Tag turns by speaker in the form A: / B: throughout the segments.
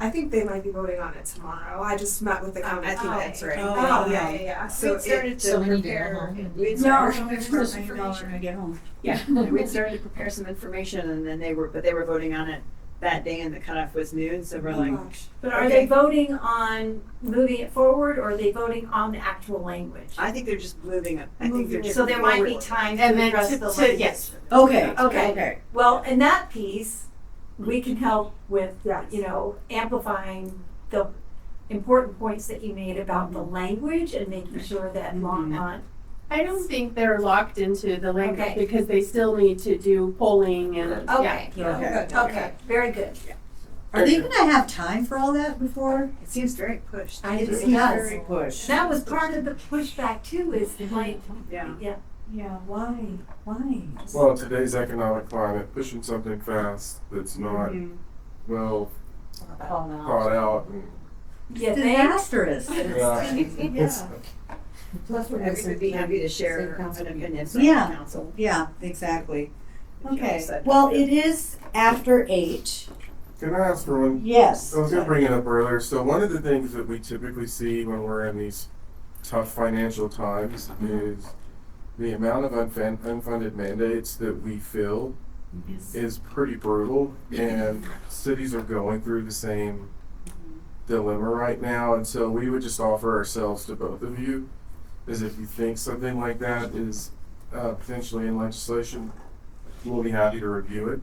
A: I think they might be voting on it tomorrow. I just met with the county.
B: I think that's right.
C: Oh,
A: Oh,
C: wow.
A: yeah, yeah, yeah. So
B: So we
A: it,
B: started to
C: So we need to go
B: prepare.
C: home.
B: we
A: No,
B: started to
C: Don't
B: prepare
C: have this
B: some
C: information when I get home.
B: Yeah, we started to prepare some information and then they were, but they were voting on it that day and the cutoff was noon, so we're
A: oh
B: like,
A: gosh.
D: But are
B: Okay.
D: they voting on moving it forward or are they voting on the actual language?
B: I think they're just moving it. I think they're just.
D: So there might be
B: forward.
D: time
C: And
D: to
C: then
D: address
C: to-
D: the
C: to-
D: language.
C: yes.
B: Okay.
D: Okay. Well, in that piece, we can help with, you know, amplifying the important points that you made about the language and making sure that Longmont.
E: I don't think they're locked into the language
D: Okay.
E: because they still need to do polling and, yeah.
D: Okay,
C: Okay.
D: okay, very good.
F: Are they gonna have time for all that before?
B: It seems very pushed.
D: I
F: It
D: didn't see that.
F: does.
C: Very push.
D: That was part of the pushback too, is like,
B: Yeah.
D: yeah,
F: Yeah, why, why?
G: Well, today's economic climate, pushing something fast that's not well thought out and.
D: yeah, thanks.
F: Disastrous.
G: Yeah.
C: Plus, we're
B: Everybody would be happy to share an opinion from the
F: Yeah.
B: council.
F: Yeah, exactly.
B: if you
F: Okay,
B: decide
F: well,
B: to.
F: it is after eight.
G: Can I ask for one?
F: Yes.
G: I was gonna bring it up earlier. So one of the things that we typically see when we're in these tough financial times is the amount of unfun- unfunded mandates that we fill is pretty brutal, and cities are going through the same dilemma right now. And so we would just offer ourselves to both of you, is if you think something like that is uh, potentially in legislation, we'll be happy to review it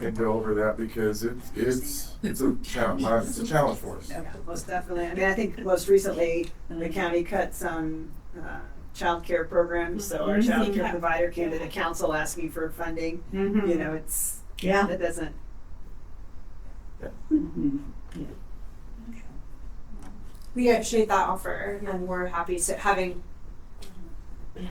G: and go over that because it's it's it's a challenge. It's a challenge for us.
B: Yeah, Most definitely. I mean, I think most recently, the county cut some, uh, childcare programs, so our childcare provider came to the council asking for funding. You know, it's,
F: Yeah.
B: that doesn't,
A: we appreciate that offer and we're happy to having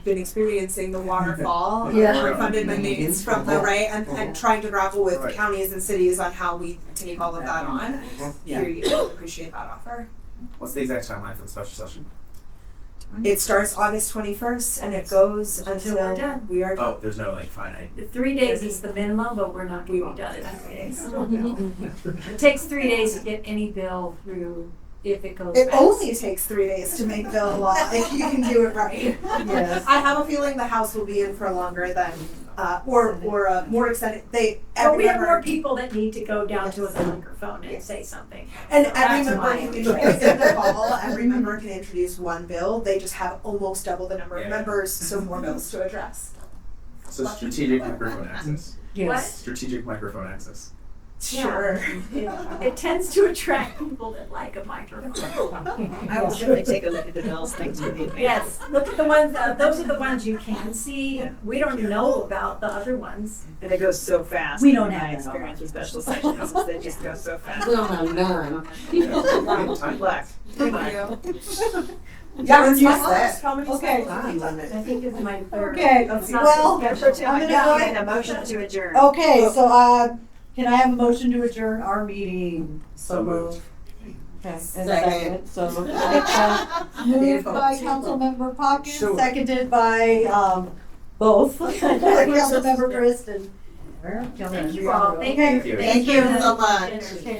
A: been experiencing the waterfall
G: Yeah. Uh-huh.
A: of unfunded mandates from the right and, and trying to grapple with
G: Right. Uh-huh.
A: counties and cities on how we take all of that on.
C: Yeah.
A: Here you appreciate that offer.
H: What's the exact timeline for the special session?
A: It starts August twenty first and it goes
D: Until we're
A: until
D: done.
A: we are
H: Oh, there's no like finite.
D: The three days is the minimum, but we're not gonna be done in three days. It takes three days to get any bill through if it goes.
A: It
D: fast.
A: only takes three days to make the law if you can do it right.
F: Yes.
A: I have a feeling the House will be in for longer than, uh, or, or a more extended, they,
D: But
A: every
D: we have more
A: member.
D: people that need to go down to a microphone and say something.
A: And every
D: That's
A: member
D: why.
A: can introduce, in the fall, every member can introduce one bill, they just have almost double the number of
H: Yeah.
A: members, so more bills to address.
H: So strategic microphone access.
F: Yes.
H: Strategic microphone access.
D: Yeah.
A: Sure.
D: It tends to attract people that like a microphone.
B: I will certainly take a look at the bills, thanks for the advice.
D: Yes, look at the ones, uh, those are the ones you can see. We don't know about the other ones.
B: And it goes so fast.
F: We don't have
B: My
F: that.
B: experience with special sessions, is they just go so fast.
C: We don't have none.
H: Yeah.
B: Time black.
A: Thank you.
F: Yeah,
A: That's my
F: reduce that.
A: comedy
F: Okay.
A: special.
D: I think it's my third.
F: Okay,
D: It's not
F: well,
D: the
F: I'm
D: special
F: gonna
D: town.
F: go Oh.
B: And a motion to adjourn.
F: Okay, so, uh, can I have a motion to adjourn our meeting?
H: So moved.
F: Okay, and
C: Second.
F: So moved. Uh, Moved by Councilmember Pockett,
H: Sure.
F: seconded by, um, both, Councilmember Kristen.
D: Thank you all, thank you.
H: Thank you.
F: Thank you
D: for
F: so
D: the dinner.